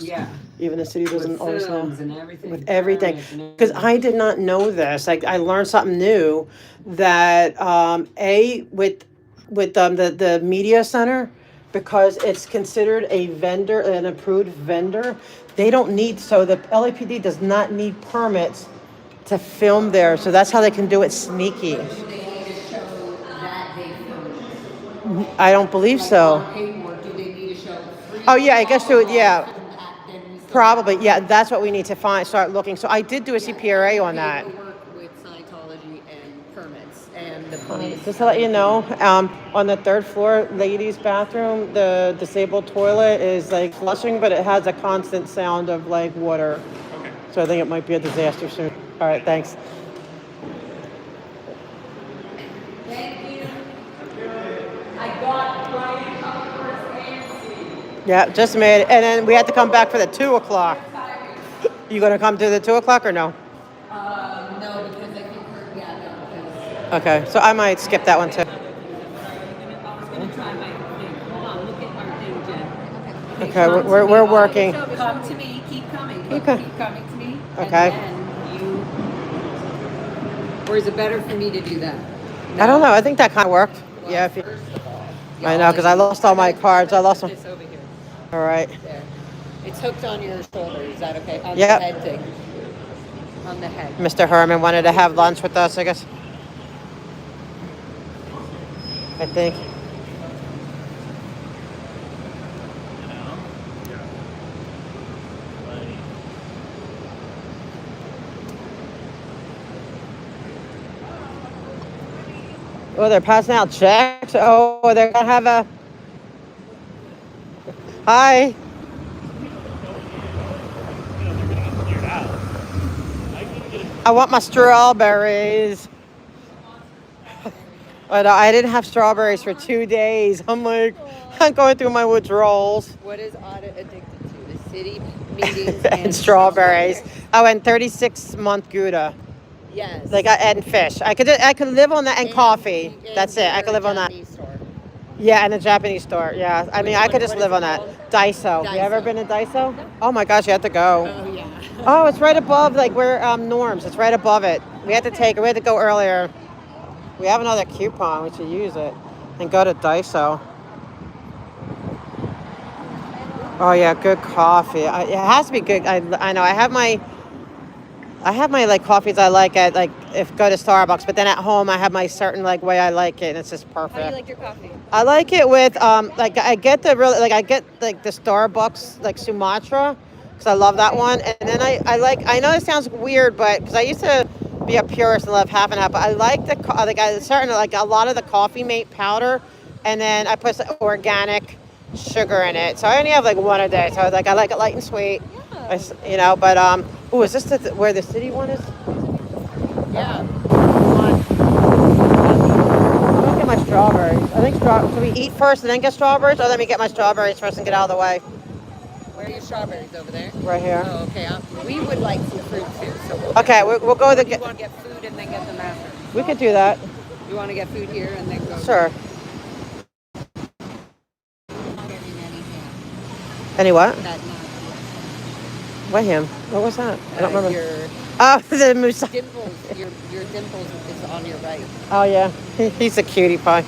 Yeah. Even the city doesn't with always know. films And everything. With everything. permits and Because everything. I did not know this. Like I learned something new that um, a with with um, the the media center because it's considered a vendor, an approved vendor. They don't need so the LAPD does not need permits to film there. So that's how they can do it sneaky. They need to show that they filmed it. I don't believe so. On paperwork, do they need to show three? Oh, yeah, I guess they would, yeah. Back then we said Probably, yeah. That's what we need to find. Start looking. So I did do a CPRA on that. Paperwork with Scientology and permits and the police. Just to let you know, um, on the third floor, ladies' bathroom, the disabled toilet is like flushing, but it has a constant sound of like water. Okay. So I think it might be a disaster soon. All right, thanks. Thank you. I got Brian Upper's and Yeah, just made it. And then we had to come back for the two o'clock. You gonna come to the two o'clock or no? Um, no, because I think her, yeah, no, because. Okay, so I might skip that one too. I was gonna try my thing. Hold on, look at our thing, Jen. Okay, come we're- to we're- me. we're Oh, it's working. over. Come to me, keep coming, keep Okay. keep coming to me. and Okay. then you- Or is it better for me to do that? I don't know. I think that kind of worked. Yeah. If you, I know because I lost all my cards. I lost them. This over here, All right. there. It's hooked on your shoulder, is that okay? On Yep. the head thing. On the head. Mr. Herman wanted to have lunch with us, I guess. I think. Oh, they're passing out checks. Oh, they're gonna have a. Hi. I want my strawberries. But I didn't have strawberries for two days. I'm like, I'm going through my withdrawals What is audit addicted to? The city meetings and strawberries. Oh, and 36 month Gouda. Yes. Like, I- and fish. I could, I could live on that and coffee. That's it. I could live on that. Yeah, in a Japanese store. Yeah. I mean, I could just live on that. Daiso. You ever Daiso. been to Daiso? Oh my gosh, you have to go. Oh, yeah. Oh, it's right above, like, where um, Norms. It's right above it. We had to take it. We had to go earlier. We have another coupon. We should use it and go to Daiso. Oh yeah, good coffee. I, it has to be good. I, I know. I have my I have my like coffees I like at like if go to Starbucks, but then at home I have my certain like way I like it, and it's just perfect. How do you like your coffee? I like it with um like I get the really like I get like the Starbucks like Sumatra because I love that one, and then I I like I know it sounds weird, but because I used to be a purist and love half and half, but I like the co- like I certain like a lot of the coffee mate powder, and then I put some organic sugar in it, so I only have like one a day. So like I like it light and sweet, I s you know. But um, oh, is this the, where the city one is? Yeah. I'm gonna get my strawberries. I think straw. Should we eat first and then get strawberries, or let me get my strawberries first and get out of the way? Where are your strawberries over there? Right here. Oh, okay. Um, we would like some fruit too. So we'll Okay, we, we'll go. The You want to get food and then get them after. we could do that. You want to get food here and then go. Sure. Not getting any ham. Any what? That not. What him? What was that? I don't uh, remember. Your Oh, the moose. dimples. Your your dimples is on your right. Oh yeah, He- he's a cutie pie.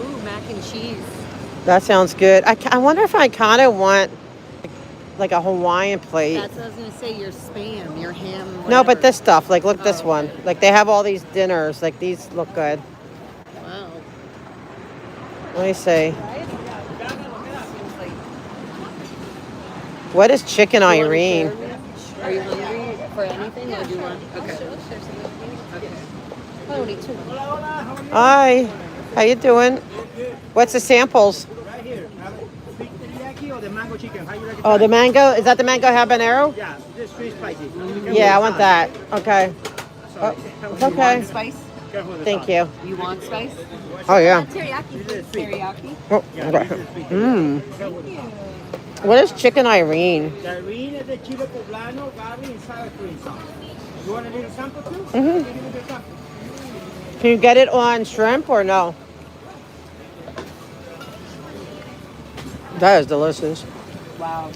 Ooh, mac and cheese. That sounds good. I, ca- I wonder if I kind of want like a Hawaiian plate. That's what I was gonna say. Your spam, your ham. no, but whatever. this stuff. Like, look, this Oh, one. okay. Like, they have all these dinners. Like, these look good. Wow. Let me see. Seems like- What is chicken You wanna Irene? share this? Are you hungry for anything or do you want? Okay. Okay. Oh, need two. Hi. How you doing? What's the samples? Right here. Have it. Sweet teriyaki or the mango chicken? How you like it? Oh, the mango. mango. Is that the mango habanero? Yeah, this sweet spicy. Yeah, I want that. Okay. Sorry. It's okay. Spice? Careful with the Thank sauce. you. You want spice? Oh yeah. This is sweet. Teriyaki? Oh, Yeah, this okay. is sweet. Mm. Careful with the sauce. What is chicken Irene? The green is the chile poblano, garlic, and sour cream sauce. You want a little sample too? Mhm. Give me the sample. Can you get it on shrimp or no? That is delicious. Wow.